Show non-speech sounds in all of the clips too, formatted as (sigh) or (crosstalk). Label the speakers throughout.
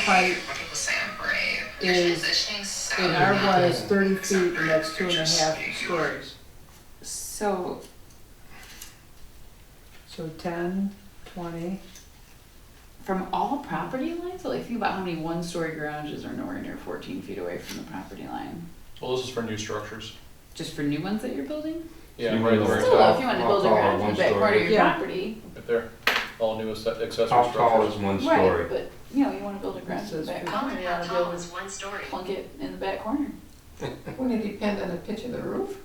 Speaker 1: height
Speaker 2: People say I'm brave. Your
Speaker 1: Is-
Speaker 2: transitioning's so
Speaker 1: in our
Speaker 2: good.
Speaker 1: one is thirty feet and that's two and a half stories.
Speaker 3: So,
Speaker 4: So ten, twenty,
Speaker 3: from all property lines, like think about how many one-story garages are nowhere near fourteen feet away from the property line.
Speaker 5: Well, this is for new structures.
Speaker 3: Just for new ones that you're building?
Speaker 5: Yeah,
Speaker 6: You
Speaker 5: right,
Speaker 6: mean
Speaker 5: right,
Speaker 6: the-
Speaker 3: Still, if you wanted to
Speaker 6: I'll
Speaker 3: build a
Speaker 6: call it
Speaker 3: garage in the back part of your
Speaker 4: one-story. Yeah.
Speaker 3: property,
Speaker 5: right there. All new acce- accessory
Speaker 6: How tall is
Speaker 5: structures.
Speaker 6: one
Speaker 3: right,
Speaker 6: story?
Speaker 3: but, you know, you wanna build a garage in the
Speaker 4: This
Speaker 3: back
Speaker 4: is-
Speaker 3: corner, you
Speaker 7: How
Speaker 3: wanna
Speaker 7: tall
Speaker 3: build,
Speaker 7: is one story?
Speaker 3: plunk it in the back corner.
Speaker 8: Wouldn't it depend on the pitch of the roof?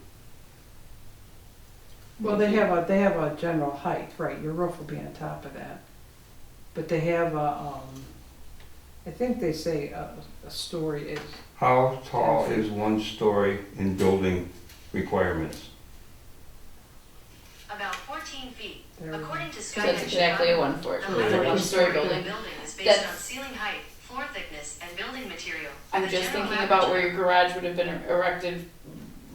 Speaker 4: well, they have a, they have a general height, right, your roof will be on top of that. But they have a, um, I think they say a, a story is,
Speaker 6: How tall is one story in building requirements?
Speaker 7: About fourteen feet.
Speaker 4: there,
Speaker 7: According to
Speaker 3: So
Speaker 7: Sky
Speaker 3: that's exactly
Speaker 7: Engineer,
Speaker 3: a one for,
Speaker 7: the
Speaker 3: for
Speaker 7: height
Speaker 3: a
Speaker 7: of each story
Speaker 3: one-story
Speaker 7: of a
Speaker 3: building.
Speaker 7: building is based on
Speaker 3: That's-
Speaker 7: ceiling height, floor thickness, and building material.
Speaker 3: I'm
Speaker 7: The
Speaker 3: just
Speaker 7: general
Speaker 3: thinking
Speaker 7: average
Speaker 3: about where your garage would have been er, erected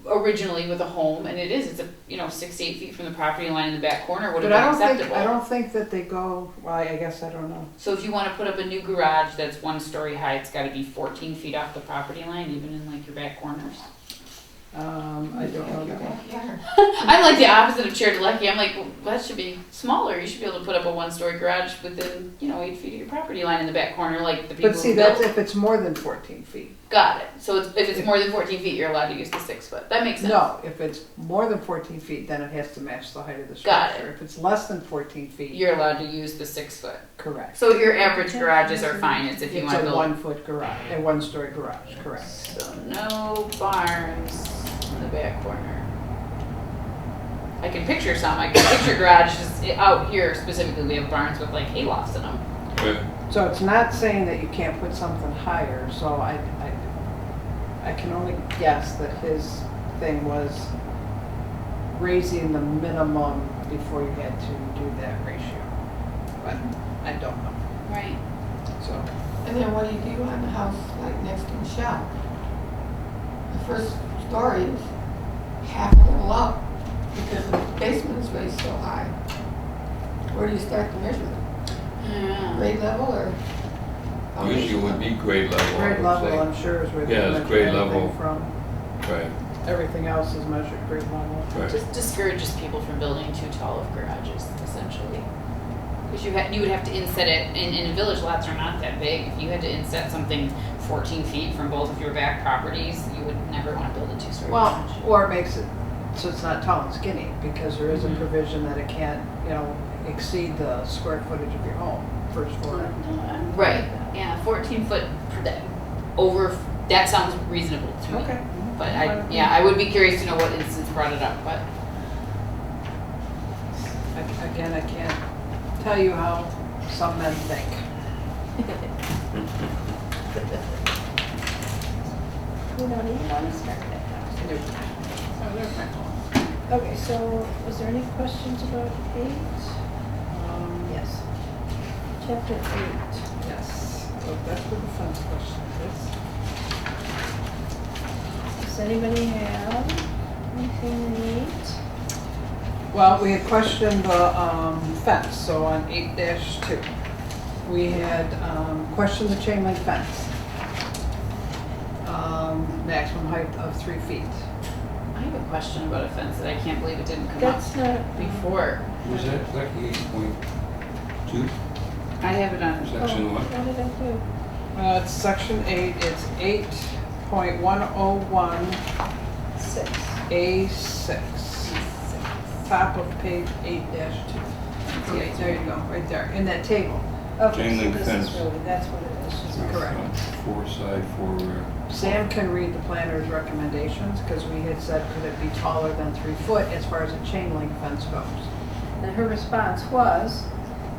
Speaker 3: originally with a home, and it is, it's a, you know, six, to eight feet from the property line in the back corner would
Speaker 4: but I
Speaker 3: have
Speaker 4: don't
Speaker 3: been
Speaker 4: think, I
Speaker 3: acceptable.
Speaker 4: don't think that they go, well, I I guess I don't know.
Speaker 3: So if you wanna put up a new garage that's one story high, it's gotta be fourteen feet off the property line, even in like your back corners.
Speaker 4: Um, I don't know that one.
Speaker 8: Yeah.
Speaker 3: (laughs) I'm like the opposite of Chair to Lucky, I'm like, well, that should be smaller, you should be able to put up a one-story garage within, you know, eight feet of your property line in the back corner, like the people
Speaker 4: But see,
Speaker 3: who
Speaker 4: that's
Speaker 3: built.
Speaker 4: if it's more than fourteen feet.
Speaker 3: Got it, so it's, if it's more than fourteen feet, you're allowed to use the six foot, that makes sense.
Speaker 4: No, if it's more than fourteen feet, then it has to match the height of the
Speaker 3: Got
Speaker 4: structure. If it's less than fourteen feet,
Speaker 3: You're allowed to use the six foot.
Speaker 4: correct.
Speaker 3: So your average garages are fine, it's if you
Speaker 4: It's
Speaker 3: want to
Speaker 4: a
Speaker 3: build.
Speaker 4: one-foot garage, a one-story garage, correct.
Speaker 3: So no barns in the back corner. I can picture some, I can picture garages out here specifically, we have barns with like hay lofts in them.
Speaker 4: So it's not saying that you can't put something higher, so I, I, I can only guess that his thing was raising the minimum before you had to do that ratio. But I don't know,
Speaker 3: Right.
Speaker 4: so.
Speaker 8: And then what do you do on the house like next to Michelle? The first story is half a little up because the basement is raised so high. Where do you start the measurement?
Speaker 3: Yeah.
Speaker 8: Grade level or?
Speaker 6: Usually would be grade level,
Speaker 4: Grade
Speaker 6: I
Speaker 4: level,
Speaker 6: would
Speaker 4: I'm sure is where
Speaker 6: Yeah,
Speaker 4: they measure
Speaker 6: it's grade level.
Speaker 4: everything from.
Speaker 6: say. Right,
Speaker 4: Everything else is measured grade level.
Speaker 6: right.
Speaker 3: Just discourages people from building too tall of garages essentially. Because you had, you would have to inset it, and, and village lots are not that big, if you had to inset something fourteen feet from both of your back properties, you would never want to build a two-story garage.
Speaker 4: Well, or it makes it, so it's not tall and skinny, because there is a
Speaker 9: Mm-hmm.
Speaker 3: Mhm.
Speaker 4: provision that it can't, you know, exceed the square footage of your home, first floor.
Speaker 9: Mm-hmm.
Speaker 3: Right, yeah, fourteen foot per day, over, that sounds reasonable to me.
Speaker 4: Okay.
Speaker 9: Mm-hmm.
Speaker 3: But I, yeah, I would be curious to know what instance brought it up, but
Speaker 9: Mm-hmm.
Speaker 4: I- Again, I can't tell you how some men think.
Speaker 9: We don't even want to start that house. Okay, so was there any questions about eight?
Speaker 4: Um,
Speaker 9: Yes. Chapter eight.
Speaker 4: Yes, so that's what the fence question is.
Speaker 9: Does anybody have anything they need?
Speaker 4: Well, we had questioned the um, fence, so on eight dash two. We had um, questioned the chain link fence. Um, Maximum height of three feet.
Speaker 3: I have a question about a fence that I can't believe it didn't come up
Speaker 9: That's not,
Speaker 3: before.
Speaker 6: Was that like eight point two,
Speaker 3: I have it on,
Speaker 9: oh, what did I do?
Speaker 4: Uh, it's section eight, it's eight point one oh one
Speaker 9: Six.
Speaker 4: A six. Top of page eight dash two. Okay, there you go, right there, in that table.
Speaker 9: Okay,
Speaker 6: Chain
Speaker 9: so
Speaker 6: link
Speaker 9: this
Speaker 6: fence.
Speaker 9: is really, that's what it is.
Speaker 4: Correct.
Speaker 6: Four side, four rear.
Speaker 4: Sam can read the planner's recommendations, because we had said, could it be taller than three foot as far as a chain link fence goes?
Speaker 9: And her response was,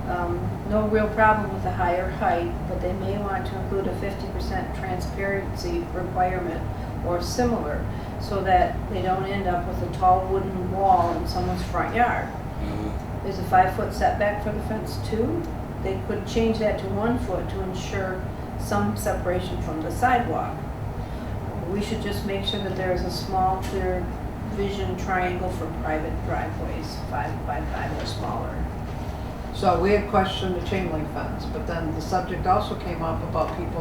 Speaker 9: um, no real problem with the higher height, but they may want to include a fifty percent transparency requirement or similar, so that they don't end up with a tall wooden wall in someone's front yard.
Speaker 6: Uh,
Speaker 9: There's a five-foot setback for the fence too. They could change that to one foot to ensure some separation from the sidewalk. We should just make sure that there is a small, clear vision triangle for private driveways, five by five or smaller.
Speaker 4: So we had questioned the chain link fence, but then the subject also came up about people